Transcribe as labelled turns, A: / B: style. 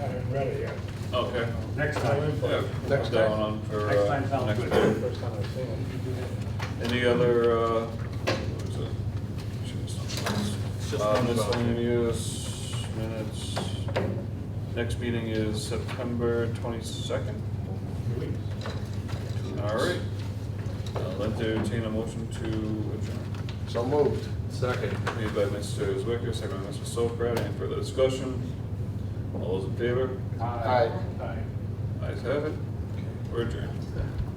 A: haven't read it yet.
B: Okay.
C: Next time.
B: Yeah,
A: Next
B: put that
A: time.
B: on for,
C: Next
B: uh,
C: time sounds
B: next
C: good.
B: time.
A: First time I've seen it.
B: Any other, uh, what is it? Should be something else. Uh, miscellaneous minutes. Next meeting is September twenty-second. All right. I'll entertain a motion to adjourn.
D: So moved. Second.
B: Made by Mr. Zwicker, second by Mr. Sokrat. Any further discussion? All those in favor?
D: Aye.
C: Aye.
B: Ayes have it. We're adjourned.